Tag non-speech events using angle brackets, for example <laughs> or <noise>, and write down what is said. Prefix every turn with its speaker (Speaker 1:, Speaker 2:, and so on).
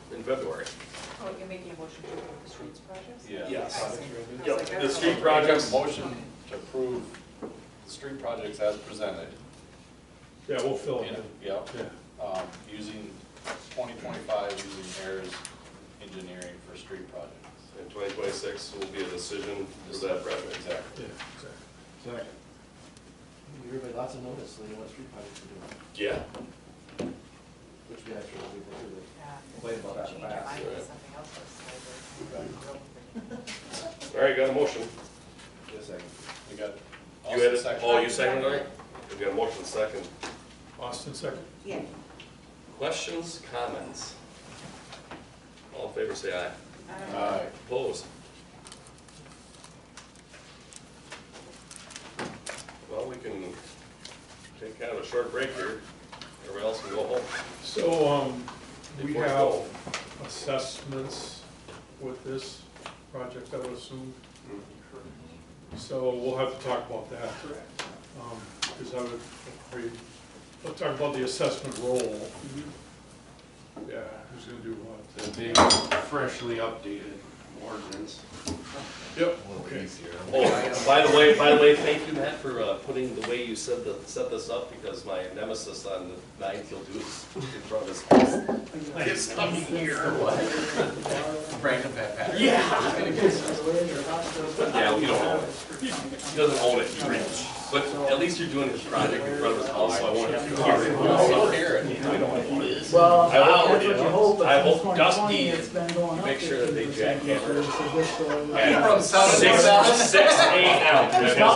Speaker 1: in February.
Speaker 2: Oh, you're making a motion to approve the streets projects?
Speaker 3: Yes.
Speaker 1: Yep.
Speaker 2: Second.
Speaker 1: The street
Speaker 3: Make a
Speaker 1: projects,
Speaker 3: motion to approve the street projects as presented.
Speaker 4: Yeah, we'll fill it in.
Speaker 3: Yep,
Speaker 4: Yeah,
Speaker 3: um, using twenty twenty-five, using Ayers Engineering for street projects.
Speaker 1: in twenty twenty-six will be a decision for that project.
Speaker 3: Exactly.
Speaker 4: yeah, exactly.
Speaker 5: Sorry. We heard by lots of notice, they want street projects to do, it,
Speaker 1: Yeah.
Speaker 5: which we actually, we do it.
Speaker 2: Yeah.
Speaker 5: Wait about that
Speaker 2: Change your
Speaker 5: fast,
Speaker 2: mind to
Speaker 1: right.
Speaker 2: something else
Speaker 5: <laughs>
Speaker 2: that's over.
Speaker 1: All right, got a motion.
Speaker 5: Just a second.
Speaker 3: We got.
Speaker 1: You had it,
Speaker 3: second.
Speaker 1: oh, you seconded it? We got a motion second.
Speaker 4: Austin, second.
Speaker 2: Yeah,
Speaker 1: Questions, comments? All in favor, say aye.
Speaker 2: I don't know.
Speaker 3: Aye.
Speaker 1: Opposed? Well, we can take kind of a short break here. Everybody else can go home.
Speaker 4: So, um, we
Speaker 1: Before it's
Speaker 4: have
Speaker 1: cold.
Speaker 4: assessments with this project, I would assume. So we'll have to talk about that. Um, cause I would, agree. let's talk about the assessment role. Yeah, who's gonna do what?
Speaker 6: The big freshly updated ordinance.
Speaker 4: Yep, okay.
Speaker 1: Oh, by the way, by the way, thank you, Matt, for uh, putting the way you said the, set this up, because my nemesis on the nine kill do is in front of his house. It's coming here.
Speaker 6: Bring it back.
Speaker 1: Yeah. Yeah, you don't own it. He doesn't own it, he rents. But at least you're doing his project in front of his house, so I won't have to.
Speaker 3: We'll hear it.
Speaker 7: Well,
Speaker 1: I
Speaker 7: that's
Speaker 1: already
Speaker 7: what you
Speaker 1: know.
Speaker 7: hope,
Speaker 1: I
Speaker 7: but since
Speaker 1: hope
Speaker 7: 2020,
Speaker 1: Dusty
Speaker 7: it's been going up.
Speaker 1: make sure that they
Speaker 7: 15%,
Speaker 1: jackhammer.
Speaker 7: so this will-
Speaker 1: Yeah.
Speaker 3: From South
Speaker 1: Six,
Speaker 3: Dakota.
Speaker 1: six, eight out.